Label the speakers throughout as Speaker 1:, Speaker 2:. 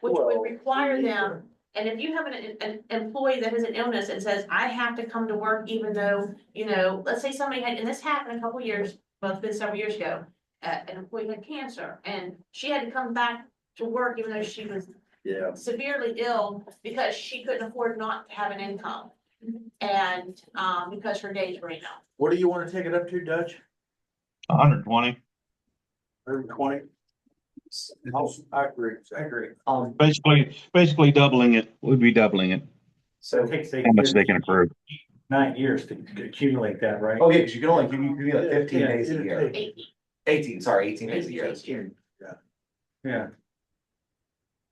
Speaker 1: which
Speaker 2: Well,
Speaker 1: would require them,
Speaker 2: sure.
Speaker 1: and if you have an, an employee that has an illness and says, I have to come to work even though, you know, let's say somebody had, and this happened a couple years, well, it's been several years ago, uh, an employee had cancer, and she had to come back to work even though she was
Speaker 2: Yeah,
Speaker 1: severely ill because she couldn't afford not to have an income. And, um, because her days were enough.
Speaker 2: what do you wanna take it up to, Dutch?
Speaker 3: hundred twenty,
Speaker 2: Hundred twenty? I agree, I agree.
Speaker 4: Oh, Um,
Speaker 3: basically, basically doubling it, would be doubling it,
Speaker 5: So it takes eight
Speaker 3: how much
Speaker 5: years-
Speaker 3: they can approve.
Speaker 5: Nine years to accumulate that, right?
Speaker 4: okay, oh, cause you can only, give you, you like fifteen
Speaker 5: Yeah,
Speaker 4: days a
Speaker 5: it'll
Speaker 4: year,
Speaker 5: take-
Speaker 1: Eighty.
Speaker 4: eighteen, sorry, eighteen days a year.
Speaker 5: Yeah.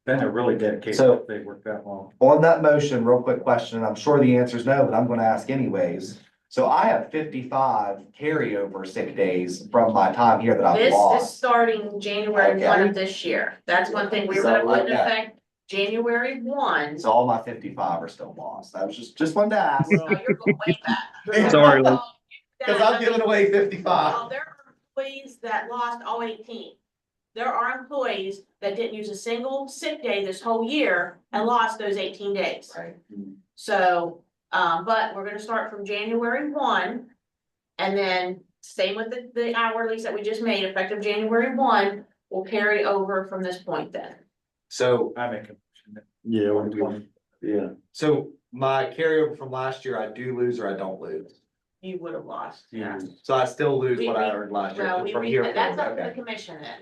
Speaker 5: Then they're really dedicated
Speaker 4: So-
Speaker 5: if they work that long.
Speaker 4: On that motion, real quick question, and I'm sure the answer is no, but I'm gonna ask anyways. So I have fifty-five carryover sick days from my time here that I've
Speaker 1: This is
Speaker 4: lost.
Speaker 1: starting January
Speaker 4: Okay.
Speaker 1: one of this year. That's one thing we were gonna
Speaker 4: So,
Speaker 1: put in
Speaker 4: okay.
Speaker 1: effect, January one.
Speaker 4: So all my fifty-five are still lost. I was just, just wanted to ask.
Speaker 1: So you're going way back.
Speaker 3: Sorry, Lynn.
Speaker 4: Cause I'm giving away
Speaker 1: Well,
Speaker 4: fifty-five.
Speaker 1: there are employees that lost all eighteen. There are employees that didn't use a single sick day this whole year and lost those eighteen days.
Speaker 4: Right.
Speaker 1: So, um, but we're gonna start from January one. And then same with the, the hourlies that we just made, effective January one, will carry over from this point then.
Speaker 4: So,
Speaker 5: I make a motion
Speaker 2: Yeah,
Speaker 5: that
Speaker 2: we- yeah,
Speaker 4: so my carryover from last year, I do lose or I don't lose.
Speaker 1: You would have lost, yeah.
Speaker 5: Yeah.
Speaker 4: So I still lose what I
Speaker 1: We-
Speaker 4: earned last year
Speaker 1: Well,
Speaker 4: but
Speaker 1: we,
Speaker 4: from
Speaker 1: re-
Speaker 4: here. forward,
Speaker 1: that's up to the
Speaker 4: okay.
Speaker 1: commission then.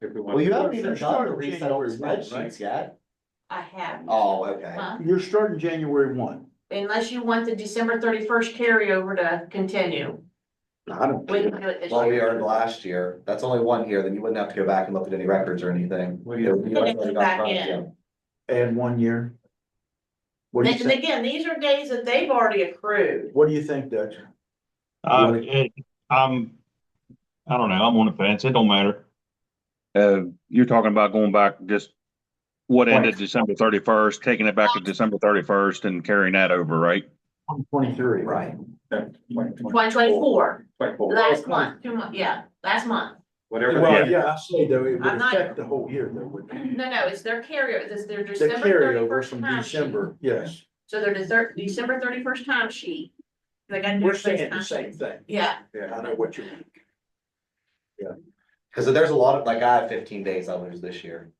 Speaker 5: if we want
Speaker 4: Well, you
Speaker 5: to-
Speaker 4: haven't even done the
Speaker 2: Starting
Speaker 4: reset on the
Speaker 2: January one, right?
Speaker 4: spreadsheets yet.
Speaker 1: I have.
Speaker 4: Oh, okay.
Speaker 1: Huh?
Speaker 2: you're starting January one.
Speaker 1: Unless you want the December thirty-first carryover to continue,
Speaker 2: I don't.
Speaker 1: we
Speaker 2: care.
Speaker 1: can do it this
Speaker 4: Well, we
Speaker 1: year.
Speaker 4: earned last year. That's only one year, then you wouldn't have to go back and look at any records or anything.
Speaker 5: Well, you-
Speaker 4: It would be like-
Speaker 1: Put it back in.
Speaker 2: Add one year. What do you
Speaker 1: And
Speaker 2: think,
Speaker 1: again, these are days that they've already accrued.
Speaker 2: what do you think, Dutch?
Speaker 3: Uh,
Speaker 2: Really?
Speaker 3: it, I'm, I don't know, I'm on the fence, it don't matter. Uh, you're talking about going back just what ended December thirty-first, taking it back to December thirty-first and carrying that over, right?
Speaker 2: Twenty-three.
Speaker 4: Right.
Speaker 1: Twenty twenty-four,
Speaker 5: Twenty-four.
Speaker 1: last month, two months, yeah, last month.
Speaker 5: Whatever.
Speaker 2: Well, yeah, I say though, it would
Speaker 1: I'm not-
Speaker 2: affect the whole year though, wouldn't it?
Speaker 1: No, no, it's their carryover, it's their
Speaker 2: The
Speaker 1: December
Speaker 2: carryover
Speaker 1: thirty-first
Speaker 2: from
Speaker 1: time sheet.
Speaker 2: December, yes,
Speaker 1: So their December, December thirty-first time sheet. They got.
Speaker 2: we're saying the same thing,
Speaker 1: Yeah,
Speaker 2: I know what you mean.
Speaker 4: Cause there's a lot of, like, I have fifteen days I lose this year.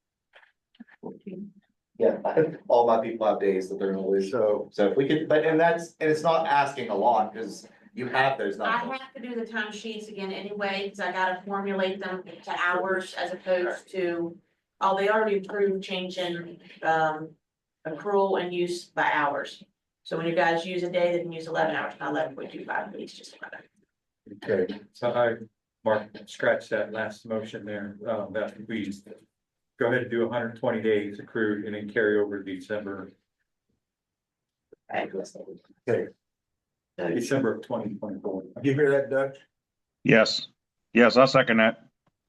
Speaker 4: Yeah, all my people have days that they're gonna lose.
Speaker 2: So,
Speaker 4: So if we could, but, and that's, and it's not asking a lot, cause you have those
Speaker 1: I
Speaker 4: numbers.
Speaker 1: have to do the time sheets again anyway, cause I gotta formulate them to hours as opposed to, oh, they already approved changing, um, accrual and use by hours. So when you guys use a day, then use eleven hours, not eleven point two five, it's just eleven.
Speaker 2: okay,
Speaker 5: So I, Mark, scratch that last motion there, uh, that we go ahead and do hundred and twenty days accrued and then carry over to December, December of twenty twenty-four.
Speaker 2: Do you hear that, Dutch?
Speaker 3: Yes, yes, I second that.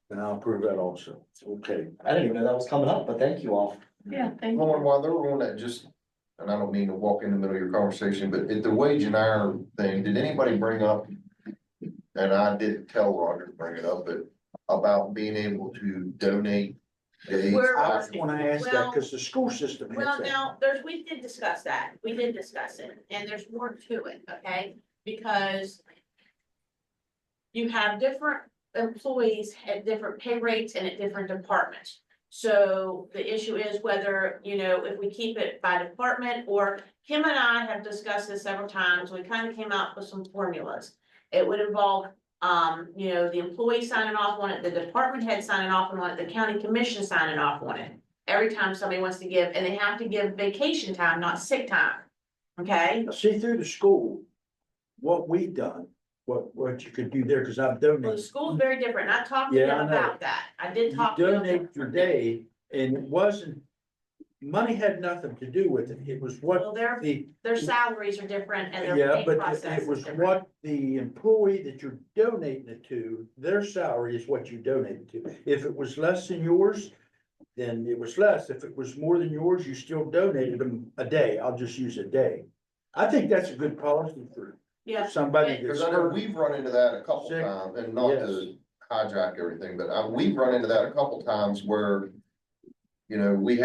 Speaker 2: And I'll approve that also, okay.
Speaker 4: I didn't even know that was coming up, but thank you all.
Speaker 1: Yeah, thank
Speaker 6: Well, and while they were on that, just, and I don't mean to walk in the middle of your conversation, but at the wage and hour thing, did anybody bring up? And I didn't tell Roger to bring it up, but about being able to donate days.
Speaker 1: Where-
Speaker 2: I wanna ask that, cause the school system has
Speaker 1: Well,
Speaker 2: that.
Speaker 1: now, there's, we did discuss that, we did discuss it, and there's more to it, okay, because. You have different employees at different pay rates and at different departments. So the issue is whether, you know, if we keep it by department, or Kim and I have discussed this several times, we kind of came out with some formulas. It would involve, um, you know, the employee signing off on it, the department head signing off on it, the county commission signing off on it every time somebody wants to give, and they have to give vacation time, not sick time. Okay,
Speaker 2: Now, See through the school, what we done, what, what you could do there, cause I've
Speaker 1: well, the
Speaker 2: donated.
Speaker 1: school's very different, and I talked to
Speaker 2: Mm-hmm. Yeah,
Speaker 1: them
Speaker 2: I know.
Speaker 1: about that, I did
Speaker 2: You
Speaker 1: talk to them.
Speaker 2: donate your day and it wasn't, money had nothing to do with it, it was what
Speaker 1: Well, their,
Speaker 2: the,
Speaker 1: their salaries are different and their
Speaker 2: Uh, yeah,
Speaker 1: pay
Speaker 2: but
Speaker 1: process
Speaker 2: it
Speaker 1: is
Speaker 2: was
Speaker 1: different.
Speaker 2: what the employee that you're donating it to, their salary is what you donated to. If it was less than yours, then it was less, if it was more than yours, you still donated them a day, I'll just use a day. I think that's a good policy for
Speaker 1: Yeah,
Speaker 2: somebody that's.
Speaker 6: Cause I know we've run into that a couple
Speaker 2: Sick.
Speaker 6: times, and not to hijack everything, but uh, we've run into that a couple times where. You know, we had